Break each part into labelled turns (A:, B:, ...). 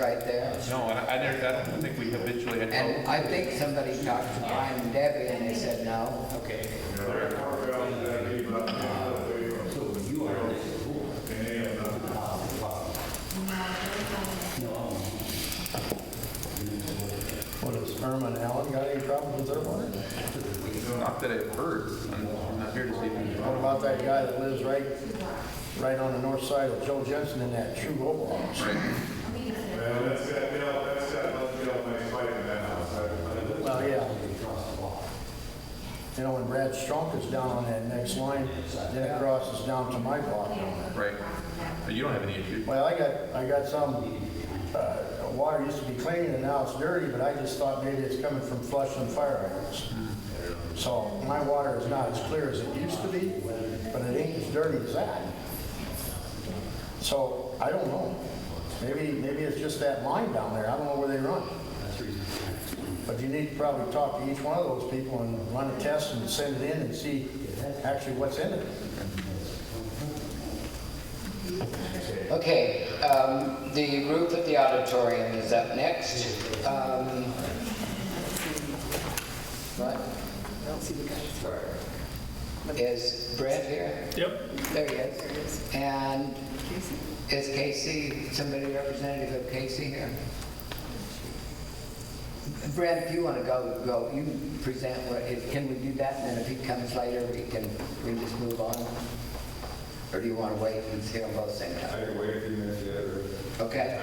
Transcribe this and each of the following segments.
A: right there.
B: No, I, I never, I don't think we habitually had.
A: And I think somebody talked to Brian and Debbie and they said no. Okay.
C: What, has Irma and Allen got any problems with their water?
B: Not that I've heard, I'm I'm not here to see them.
C: What about that guy that lives right, right on the north side of Joe Jensen in that true Oval House?
B: Right.
D: Well, that's got, Bill, that's got, Bill, nice fight in that house. I-
C: Well, yeah. You know, when Brad Strunk is down on that next line, then it crosses down to my block.
B: Right. But you don't have any issue.
C: Well, I got, I got some, uh, water used to be clean and now it's dirty, but I just thought maybe it's coming from flushing fire hydrants. So my water is not as clear as it used to be, but it ain't as dirty as that. So I don't know. Maybe, maybe it's just that line down there. I don't know where they run. But you need to probably talk to each one of those people and run a test and send it in and see actually what's in it.
A: Okay, um, the roof of the auditorium is up next. Um, What?
E: I don't see the guys for.
A: Is Brent here?
F: Yep.
A: There he is. And
E: Casey?
A: is Casey, somebody representative of Casey here? Brent, if you want to go, go, you present what, if- can we do that, and then if he comes later, we can, we just move on? Or do you want to wait and see them both same time?
D: I can wait a few minutes yet, or-
A: Okay,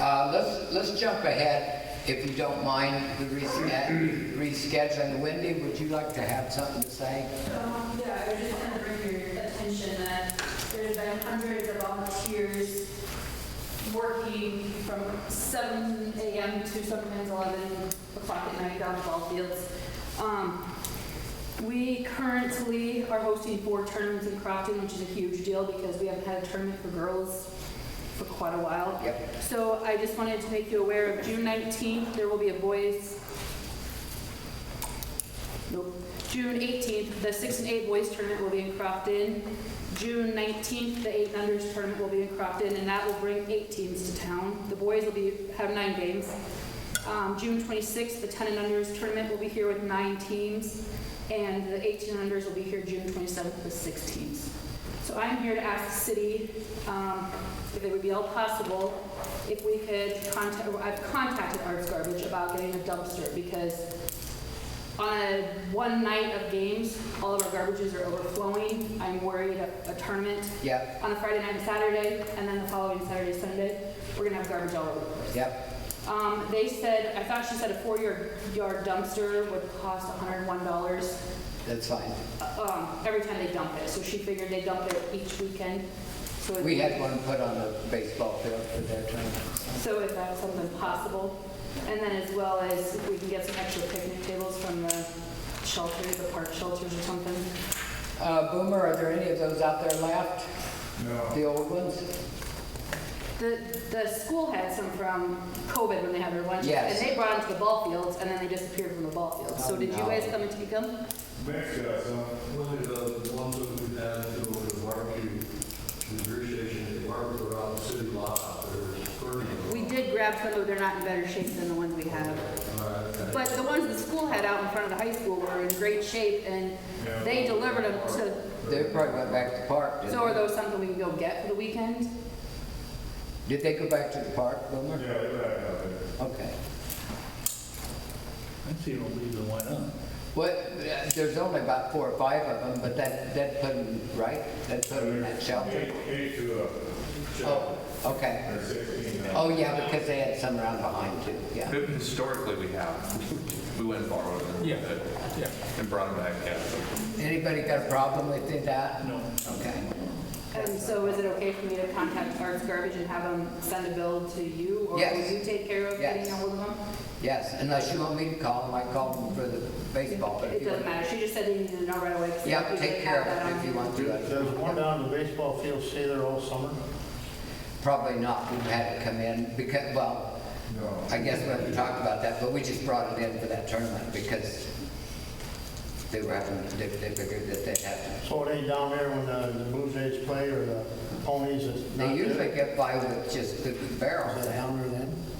A: uh, let's, let's jump ahead, if you don't mind, the resched- rescheduling. Wendy, would you like to have something to say?
G: Um, Yeah, I was just kind of bring your attention that there's been hundreds of volunteers working from 7 AM to sometimes 11 o'clock at night down the ball fields. Um, We currently are hosting four tournaments in Crofton, which is a huge deal because we haven't had a tournament for girls for quite a while.
A: Yep.
G: So I just wanted to make you aware of June 19th, there will be a boys Nope. June 18th, the 6 and 8 boys tournament will be in Crofton. June 19th, the 8 and unders tournament will be in Crofton, and that will bring eight teams to town. The boys will be, have nine games. Um, June 26th, the 10 and unders tournament will be here with nine teams, and the 18 and unders will be here June 27th with six teams. So I'm here to ask the city, um, if it would be all possible, if we could contact, I've contacted Arts Garbage about getting a dumpster, because on a one night of games, all of our garbages are overflowing. I'm worried a, a tournament
A: Yep,
G: on a Friday night and Saturday, and then the following Saturday, Sunday, we're gonna have garbage all over the place.
A: yep,
G: Um, they said, I thought she said a four-yard yard dumpster would cost hundred and one dollars,
A: that's fine.
G: um, every time they dump it. So she figured they dump it each weekend. So if-
A: We had one put on the baseball field for their tournament.
G: So if that's something possible, and then as well as if we can get some extra picnic tables from the shelters, the park shelters or something.
A: Uh, Boomer, are there any of those out there left?
D: No.
A: The old ones?
G: The, the school had some from COVID when they had their lunches.
A: Yes.
G: And they brought them to the ball fields, and then they disappeared from the ball fields.
A: Oh,
G: So did you
A: no.
G: guys come and take them?
D: Next, uh, so.
H: One of the ones that we had to over the barbecue, the beer station, they barbecue around the city lot out there, burning them.
G: We did grab some, but they're not in better shape than the ones we have. But the ones the school had out in front of the high school were in great shape, and they delivered them to,
A: They probably went back to the park, didn't
G: so are
A: they?
G: those something we can go get for the weekend?
A: Did they go back to the park, Boomer?
D: Yeah, they're back out there.
A: Okay.
F: I'd say don't leave them, why not?
A: What, there's only about four or five of them, but that, that put them, right? That put them in that shelter?
D: Eight, eight to, uh,
A: Oh, okay.
D: or sixteen. now.
A: Oh, yeah, because they had some around behind too, yeah.
B: Historically, we have. We went and borrowed them.
F: Yeah, yeah.
B: And brought them back, yeah.
A: Anybody got a problem with it, that?
F: No.
A: Okay.
G: And so is it okay for me to contact Arts Garbage and have them send a bill to you? Or
A: Yes.
G: will you take care of getting
A: Yes.
G: ahold of them?
A: Yes, unless you want me to call them, I called them for the baseball, but if
G: It
A: you
G: doesn't
A: want.
G: matter, she just said they needed to know right away. 'cause they
A: Yeah,
G: usually
A: take care of
G: have that
A: it
G: on
A: if you
G: hand.
A: want to.
C: Does one down the baseball field stay there all summer?
A: Probably not, we've had it come in because, well,
D: No.
A: I guess we haven't talked about that, but we just brought it in for that tournament because they were having, they they figured that they'd have to
C: So it ain't down there when the the Blue Jays play or the ponies, it's not
A: They
C: there?
A: usually get by with just the barrels.
C: Is it down there